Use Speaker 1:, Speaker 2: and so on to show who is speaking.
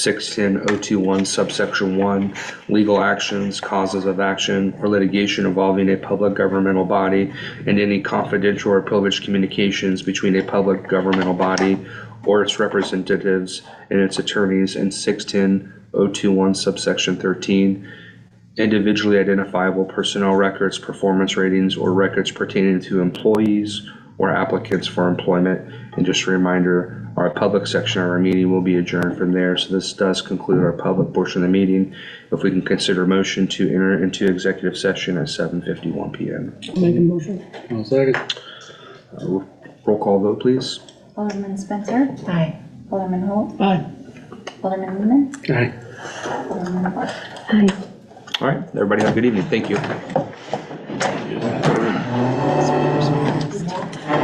Speaker 1: six-ten oh two-one subsection one, legal actions, causes of action, or litigation involving a public governmental body and any confidential or privileged communications between a public governmental body or its representatives and its attorneys, and six-ten oh two-one subsection thirteen, individually identifiable personnel records, performance ratings, or records pertaining to employees or applicants for employment. And just a reminder, our public section of our meeting will be adjourned from there, so this does conclude our public portion of the meeting. If we can consider a motion to enter into executive session at seven fifty-one PM.
Speaker 2: Make a motion.
Speaker 3: I'll second.
Speaker 1: Roll call vote, please.
Speaker 4: Alderman Spencer,
Speaker 5: Aye.
Speaker 4: Alderman Holt,
Speaker 2: Aye.
Speaker 4: Alderman Lehman,
Speaker 3: Aye.
Speaker 4: Alderman Clark.
Speaker 1: All right, everybody have a good evening. Thank you.